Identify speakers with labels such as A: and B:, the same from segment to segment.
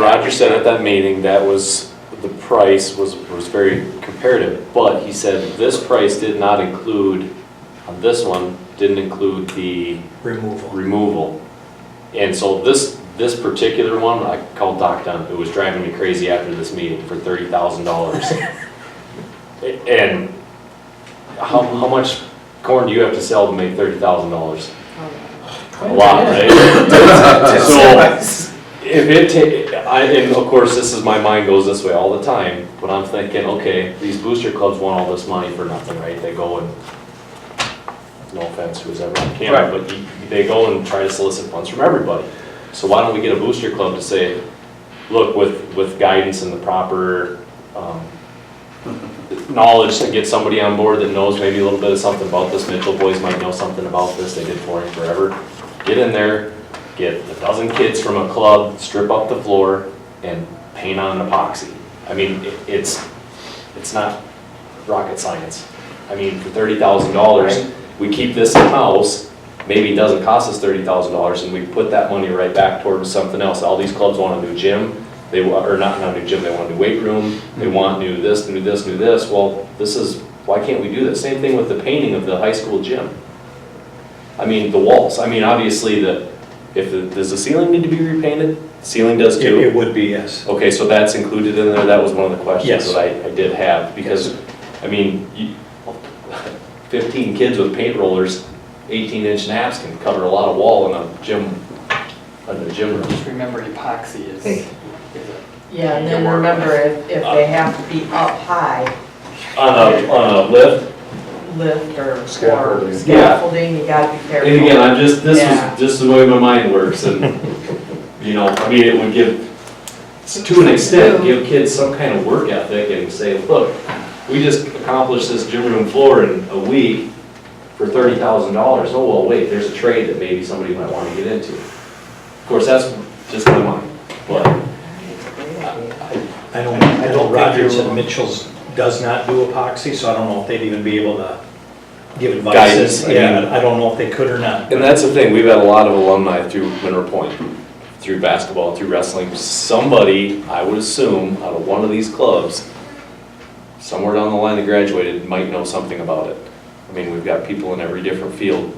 A: Roger said at that meeting that was, the price was, was very comparative, but he said this price did not include, on this one, didn't include the
B: removal.
A: removal. And so this, this particular one, I called Doc Dunn, who was driving me crazy after this meeting for thirty thousand dollars. And how, how much corn do you have to sell to make thirty thousand dollars? A lot, right? So, if it ta, I, and of course, this is, my mind goes this way all the time, but I'm thinking, okay, these booster clubs want all this money for nothing, right? They go and, no offense, who's ever on camera, but you- they go and try to solicit funds from everybody. So why don't we get a booster club to say, look, with, with guidance and the proper, um, knowledge to get somebody on board that knows maybe a little bit of something about this, Mitchell boys might know something about this, they did flooring forever. Get in there, get a dozen kids from a club, strip up the floor, and paint on an epoxy. I mean, it- it's, it's not rocket science. I mean, for thirty thousand dollars, we keep this in-house, maybe it doesn't cost us thirty thousand dollars, and we put that money right back towards something else. All these clubs want a new gym, they, wa- or not, not a new gym, they want a new weight room, they want new this, new this, new this. Well, this is, why can't we do this? Same thing with the painting of the high school gym. I mean, the walls, I mean, obviously, the, if, the- does the ceiling need to be repainted? Ceiling does
B: It
A: too.
B: it would be, yes.
A: Okay, so that's included in there, that was one of the questions
B: Yes.
A: that I, I did have, because, I mean, you- fifteen kids with paint rollers, eighteen inch naps can cover a lot of wall in a gym, in a gym room.
C: Just remember epoxy is,
D: Hey.
C: is a-
D: Yeah, and then remember, if, if they have to be up high,
A: On a, on a lift,
D: lift or, or
E: Scaffolding. Yeah.
D: scaffolding, you gotta be
A: and again,
D: careful.
A: I'm just, this
D: Yeah.
A: is, just the way my mind works, and, you know, I mean, it would give, to an extent, give kids some kind of work ethic and say, look, we just accomplished this gym room floor in a week for thirty thousand dollars. Oh, well, wait, there's a trade that maybe somebody might want to get into. Of course, that's just my mind, but
B: I don't, I
E: I
B: know
E: don't think
B: Rogers
E: you're
B: and
E: wrong.
B: Mitchell's does not do epoxy, so I don't know if they'd even be able to give
A: Guidance,
B: advice.
A: I mean-
B: Yeah, I don't know if they could or not.
A: And that's the thing, we've had a lot of alumni through Mineral Point, through basketball, through wrestling. Somebody, I would assume, out of one of these clubs, somewhere down the line that graduated, might know something about it. I mean, we've got people in every different field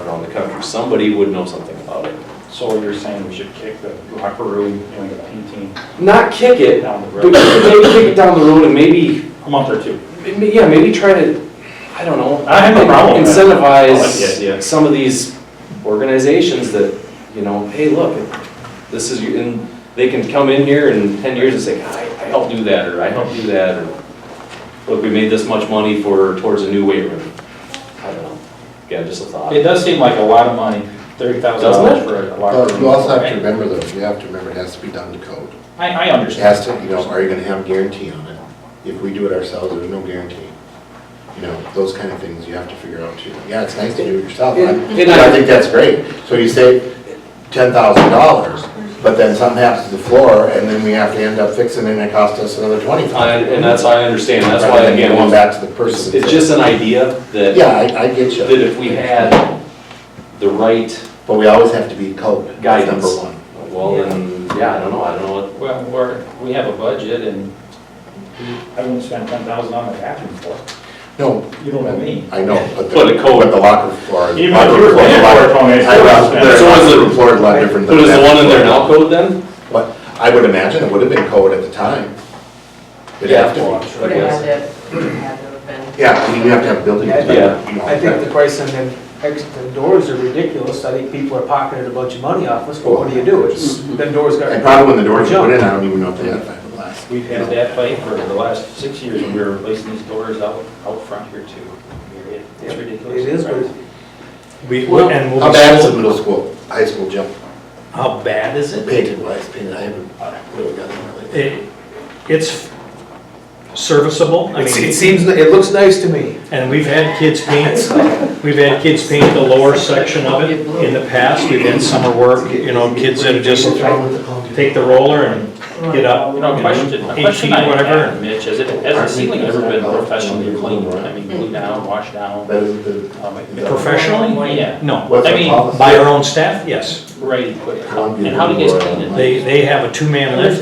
A: around the country. Somebody would know something about it.
E: So you're saying we should kick the locker room, you know, the painting
A: Not kick it,
E: down the
A: but maybe
E: road
A: kick it down the road and maybe,
E: a month or two?
A: maybe- yeah, maybe try to, I don't know.
E: I have no problem with that. I like the
A: incentivize
E: idea.
A: some of these organizations that, you know, hey, look, this is, you and they can come in here in ten years and say, I, I helped do that, or I helped do that, or, look, we made this much money for, towards a new weight room. I don't know, yeah, just a thought.
E: It does seem like a lot of money, thirty thousand
A: Doesn't
E: dollars
A: it?
E: for a locker
F: Well,
E: room.
F: you also have to
E: right?
F: remember though, you have to remember it has to be done to code.
E: I, I
F: It
E: understand.
F: has to, you know, are you gonna have guarantee on it? If we do it ourselves, there's no guarantee. You know, those kind of things you have to figure out too. Yeah, it's nice to do it yourself, I,
A: And- and I-
F: I think that's great. So you save ten thousand dollars, but then something happens to the floor and then we have to end up fixing it and it costs us another twenty
A: I-
F: five.
A: And that's, I understand, that's why, again,
F: Going back to the person.
A: it's just an idea that,
F: Yeah, I, I get
A: that
F: you,
A: if we had the right
F: but we always have to be code, that's number
A: guidance.
F: one.
A: Well, then, yeah, I don't know, I don't know what
E: Well, we're, we have a budget and I wouldn't spend ten thousand on the bathroom floor.
F: No,
E: You know what I mean?
F: I know, but the.
A: But a code.
F: But the locker floor.
E: Even if you were paying for it, Tony, it's
F: I know,
E: still-
F: there's
A: So is
F: locker
A: it-
F: room floor is a lot different
A: But
F: than.
A: is the
F: that.
A: one in there now code then?
F: But I would imagine it would have been code at the time. It'd have to
D: Would have had to, would have had to have been.
F: be. Yeah, I mean, you have to have building.
G: Yeah, I think-
F: inspector, you know,
G: I think the
F: that-
G: price on them, ex- them doors are ridiculous, I think people are pocketing a bunch of money off us, but what do you do? It's, them doors got.
F: Mm-hmm. And probably when the doors were put in, I don't even know if they had fiberglass.
E: We've had that fight for the last six years and we were replacing these doors out, out front here too. It's ridiculous.
G: It is, but
B: We,
G: Well,
B: and we'll
F: How
B: be
F: bad is the
B: sold-
F: middle school, high school gym?
B: How bad is it?
F: Painted wise, painted, I haven't, I haven't really got it really.
B: It, it's serviceable, I
G: It's- it
B: mean,
G: seems, it looks nice to me.
B: and we've had kids paint, we've had kids paint the lower section of it in the past, we've had summer work, you know, kids that are just
F: What's wrong with the code?
B: take the roller and get up.
E: You know, a question, a
B: Eight
E: question
B: feet,
E: I have,
B: whatever.
E: Mitch, has it, has the
F: Aren't we-
E: ceiling ever been
F: Aren't we-
E: professionally cleaned? I mean, glued down, washed down?
F: That is the,
E: um,
B: Professionally?
E: Yeah,
B: No,
F: what's
E: I
F: the
E: mean,
F: policy?
B: by our own staff, yes.
E: right, but, how-
F: Columbia
E: and how do you guys
F: Brewer,
E: clean it?
B: They, they have a two-man lift,